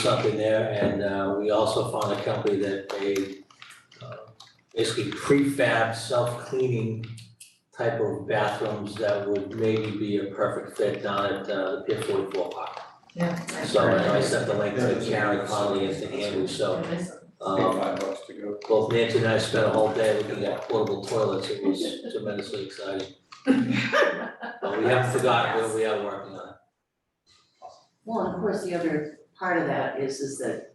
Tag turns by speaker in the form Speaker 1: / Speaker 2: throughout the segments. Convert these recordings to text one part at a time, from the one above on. Speaker 1: something there, and uh, we also found a company that made uh, basically prefab, self-cleaning type of bathrooms that would maybe be a perfect fit down at uh, the Pier 44 Park.
Speaker 2: Yeah.
Speaker 1: So I know I sent the link
Speaker 3: Yeah,
Speaker 1: to
Speaker 3: it's a-
Speaker 1: Karen Conley and to Andrew, so
Speaker 3: Pay
Speaker 1: um,
Speaker 3: five bucks to go.
Speaker 1: both Nancy and I spent a whole day looking at portable toilets, it was tremendously exciting. But we haven't forgotten what we are working on.
Speaker 4: Well, and of course, the other part of that is, is that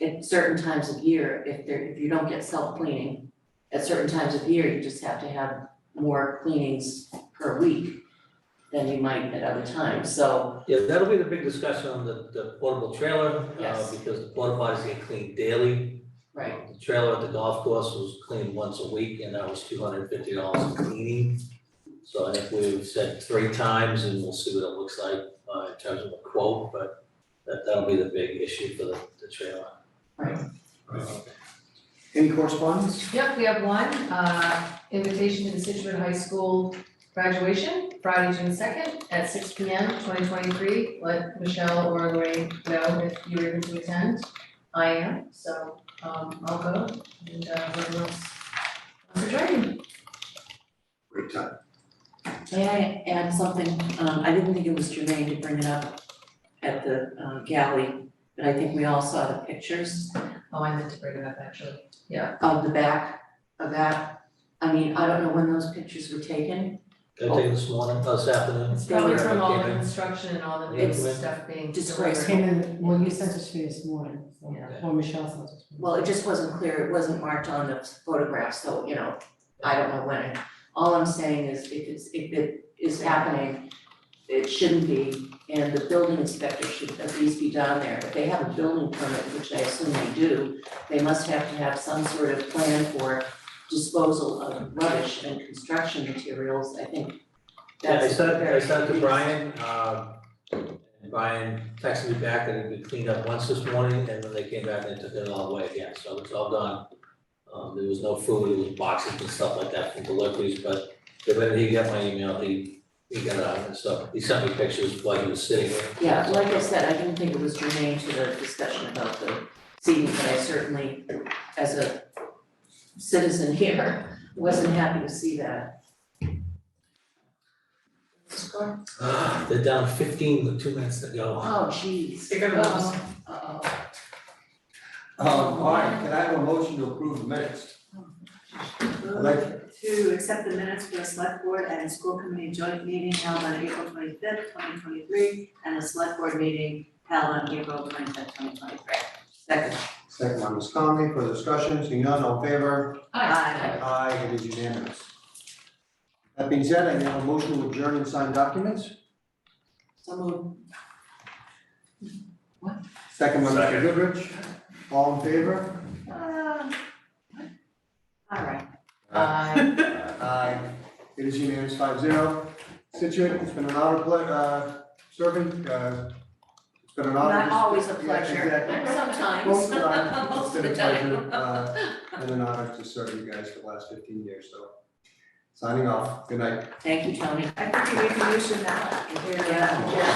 Speaker 4: at certain times of year, if there, if you don't get self-cleaning, at certain times of year, you just have to have more cleanings per week than you might at other times, so,
Speaker 1: Yeah, that'll be the big discussion on the, the portable trailer, uh,
Speaker 4: Yes.
Speaker 1: because the porta potties get cleaned daily.
Speaker 4: right,
Speaker 1: The trailer at the golf course was cleaned once a week, and that was two hundred and fifty dollars in cleaning. So I think we've said three times, and we'll see what it looks like, uh, in terms of a quote, but that, that'll be the big issue for the, the trailer.
Speaker 3: Any correspondence?
Speaker 2: Yep, we have one, uh, invitation to the Situate High School graduation, Friday, June second, at six P M, twenty twenty-three. Let Michelle or Lorraine know if you're able to attend. I am, so, um, I'll go, and, uh, everyone else wants to join me.
Speaker 3: Great time.
Speaker 4: may I add something, um, I didn't think it was germane to bring it up at the uh, galley, but I think we all saw the pictures
Speaker 2: Oh, I meant to bring it up, actually.
Speaker 4: of the back of that. I mean, I don't know when those pictures were taken,
Speaker 1: Can I take this morning, uh, this afternoon?
Speaker 2: Oh. It's probably from all the
Speaker 1: Okay.
Speaker 2: construction and all the
Speaker 1: Yeah,
Speaker 2: big
Speaker 1: but-
Speaker 2: stuff being
Speaker 4: Disgrace.
Speaker 2: delivered.
Speaker 5: Came in, well, you sent it to me this morning, so-
Speaker 2: Yeah.
Speaker 5: or Michelle sent it to me.
Speaker 4: well, it just wasn't clear, it wasn't marked on the photograph, so, you know, I don't know when. All I'm saying is if it's, if it is happening, it shouldn't be, and the building inspector should at least be down there. If they have a building permit, which I assume they do, they must have to have some sort of plan for disposal of rubbish and construction materials, I think
Speaker 1: Yeah,
Speaker 4: that's.
Speaker 1: I sent, I
Speaker 4: very-
Speaker 1: sent to Brian, uh, and Brian texted me back that it'd be cleaned up once this morning, and then they came back and took it all away again, so it's all done. Um, there was no food, it was boxes and stuff like that from deliveries, but the minute he got my email, he, he got out and stuff, he sent me pictures while he was sitting there.
Speaker 4: Yeah, like I said, I didn't think it was germane to the discussion about the seating, but I certainly, as a citizen here, wasn't happy to see that.
Speaker 1: Ah, They're down fifteen with two minutes to go.
Speaker 4: Oh, jeez.
Speaker 2: Um,
Speaker 4: Uh-oh.
Speaker 3: Um, all right, can I have a motion to approve the minutes? I'd like to
Speaker 6: to accept the minutes for the select board and the school committee joint meeting held on April twenty-fifth, twenty twenty-three, and the select board meeting held on April twenty-fifth, twenty twenty-three.
Speaker 4: Second.
Speaker 3: Second by Ms. Conley, for discussion, seeing none, all in favor?
Speaker 4: Aye.
Speaker 3: Aye, it is unanimous. That being said, I have a motion to adjourn and sign documents.
Speaker 4: So moved.
Speaker 3: Second by Mr.
Speaker 1: Second.
Speaker 3: Goodrich, all in favor?
Speaker 6: Um, All right.
Speaker 2: Aye.
Speaker 3: Aye. It is unanimous, five zero. Situate, it's been an honor, ple- uh, serving, uh, it's been an honor.
Speaker 4: Not always a
Speaker 3: Yeah,
Speaker 4: pleasure,
Speaker 3: exactly.
Speaker 2: Uh,
Speaker 4: sometimes.
Speaker 3: Most of the time, it's
Speaker 4: Most
Speaker 3: been
Speaker 4: of
Speaker 3: a
Speaker 4: the time.
Speaker 3: pleasure, uh, and an honor to serve you guys for the last fifteen years, so. Signing off, good night.
Speaker 4: Thank you, Tony.
Speaker 6: I think we can use it now.
Speaker 4: Yeah.